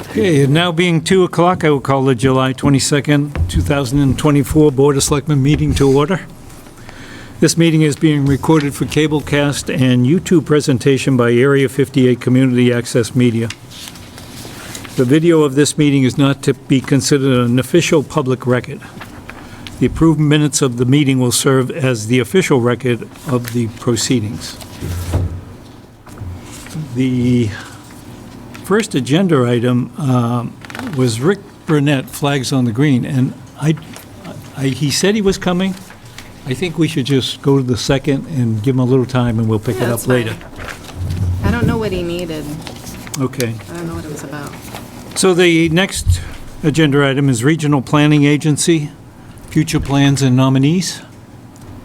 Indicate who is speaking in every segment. Speaker 1: Okay, it now being 2 o'clock, I will call the July 22nd, 2024 Board of Selectmen meeting to order. This meeting is being recorded for cablecast and YouTube presentation by Area 58 Community Access Media. The video of this meeting is not to be considered an official public record. The approved minutes of the meeting will serve as the official record of the proceedings. The first agenda item um, was Rick Burnett, Flags on the Green, and I, I- he said he was coming. I think we should just go to the second and give him a little time, and we'll pick it
Speaker 2: Yeah,
Speaker 1: up
Speaker 2: that's fine.
Speaker 1: later.
Speaker 2: I don't know what he needed.
Speaker 1: Okay.
Speaker 2: I don't know what it was about.
Speaker 1: So the next agenda item is Regional Planning Agency, future plans and nominees.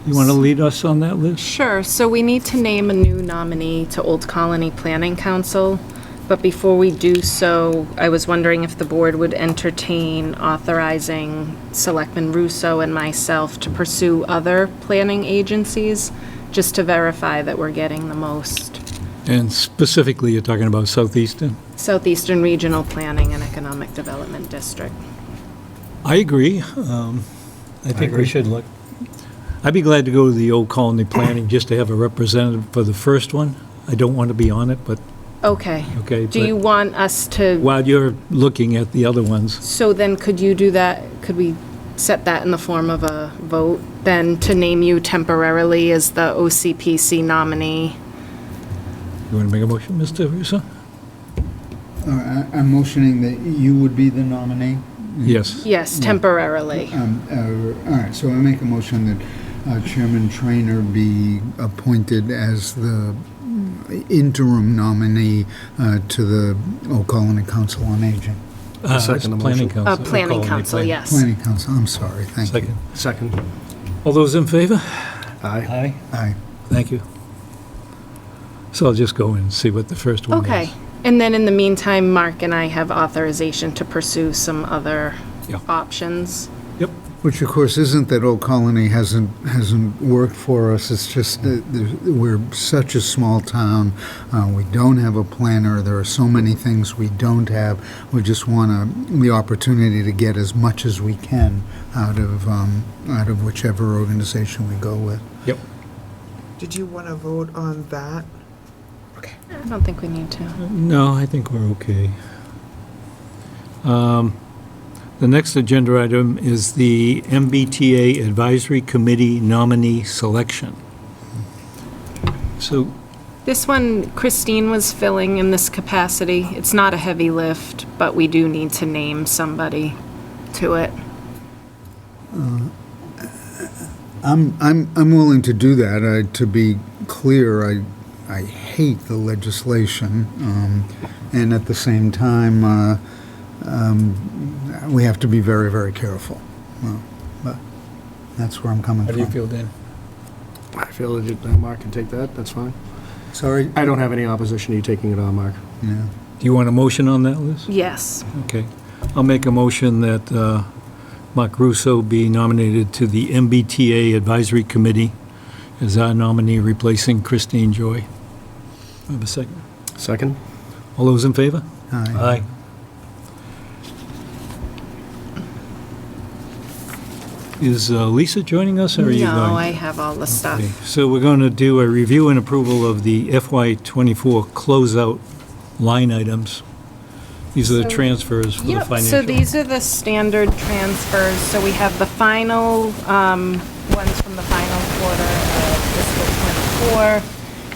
Speaker 1: You want to lead us on that list?
Speaker 2: Sure, so we need to name a new nominee to Old Colony Planning Council. But before we do so, I was wondering if the board would entertain authorizing Selectman Russo and myself to pursue other planning agencies, just to verify that we're getting the most
Speaker 1: And specifically, you're talking about Southeastern?
Speaker 2: Southeastern Regional Planning and Economic Development District.
Speaker 1: I agree. Um, I think we should look. I'd be glad to go to the Old Colony Planning just to have a representative for the first one. I don't want to be on it, but,
Speaker 2: Okay.
Speaker 1: okay.
Speaker 2: Do
Speaker 1: but
Speaker 2: you want us to?
Speaker 1: While you're looking at the other ones,
Speaker 2: So then could you do that, could we set that in the form of a vote, then to name you temporarily as the OCPC nominee?
Speaker 1: you want to make a motion, Mr. Russo?
Speaker 3: All right, I- I'm motioning that you would be the nominee.
Speaker 4: Mm-hmm.
Speaker 1: Yes.
Speaker 2: Yes, temporarily.
Speaker 3: Um, uh, All right, so I make a motion that uh, Chairman Trainer be appointed as the interim nominee uh, to the Old Colony Council on Aging.
Speaker 1: Uh, it's
Speaker 4: second the
Speaker 1: Planning
Speaker 4: motion.
Speaker 2: Uh,
Speaker 1: Council. Old
Speaker 2: Planning
Speaker 1: Colony
Speaker 2: Council,
Speaker 1: Planning.
Speaker 2: yes.
Speaker 3: Planning Council, I'm sorry, thank you.
Speaker 1: Second.
Speaker 4: Second.
Speaker 1: All those in favor?
Speaker 4: Aye.
Speaker 1: Aye.
Speaker 3: Aye.
Speaker 1: Thank you. So I'll just go and see what the first one is.
Speaker 2: Okay, and then in the meantime, Mark and I have authorization to pursue some other
Speaker 1: Yeah.
Speaker 2: options.
Speaker 1: Yep.
Speaker 3: Which, of course, isn't that Old Colony hasn't, hasn't worked for us, it's just that there- we're such a small town, uh, we don't have a planner, there are so many things we don't have, we just want to, the opportunity to get as much as we can out of, um, out of whichever organization we go with.
Speaker 1: Yep.
Speaker 5: Did you want to vote on that?
Speaker 2: I don't think we need to.
Speaker 1: No, I think we're okay. Um, The next agenda item is the MBTA Advisory Committee nominee selection. So,
Speaker 2: This one Christine was filling in this capacity. It's not a heavy lift, but we do need to name somebody to it.
Speaker 3: I'm, I'm, I'm willing to do that. I, to be clear, I, I hate the legislation. Um, and at the same time, uh, um, we have to be very, very careful. Well, but that's where I'm coming
Speaker 1: how do
Speaker 3: from.
Speaker 1: you feel, Dan?
Speaker 4: I feel legit, uh, Mark can take that, that's fine.
Speaker 3: Sorry?
Speaker 4: I don't have any opposition to you taking it on, Mark.
Speaker 3: Yeah.
Speaker 1: Do you want a motion on that, Liz?
Speaker 2: Yes.
Speaker 1: Okay. I'll make a motion that uh, Mark Russo be nominated to the MBTA Advisory Committee as our nominee replacing Christine Joy. Have a second.
Speaker 4: Second?
Speaker 1: All those in favor?
Speaker 3: Aye.
Speaker 1: Aye. Is uh, Lisa joining us, or are you going?
Speaker 2: No, I have all the stuff.
Speaker 1: Okay, So we're going to do a review and approval of the FY24 closeout line items. These are the
Speaker 2: So-
Speaker 1: transfers for the
Speaker 2: Yep, so
Speaker 1: financial.
Speaker 2: these are the standard transfers, so we have the final, um, ones from the final quarter of fiscal twenty-four,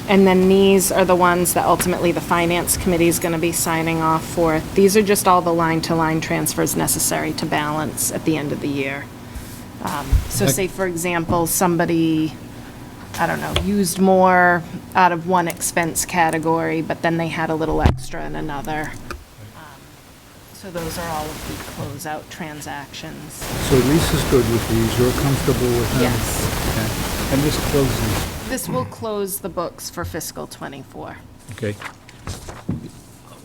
Speaker 2: and then these are the ones that ultimately the finance committee is gonna be signing off for. These are just all the line-to-line transfers necessary to balance at the end of the year. Um, So
Speaker 1: Okay.
Speaker 2: say, for example, somebody, I don't know, used more out of one expense category, but then they had a little extra in another. Um, So those are all of the closeout transactions.
Speaker 3: So Lisa's good with these. You're comfortable with them?
Speaker 2: Yes.
Speaker 3: Okay. And this closes.
Speaker 2: This will close the books for fiscal '24.
Speaker 1: Okay.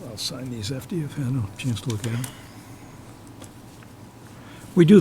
Speaker 1: I'll sign these after you've had a chance to look at them. We do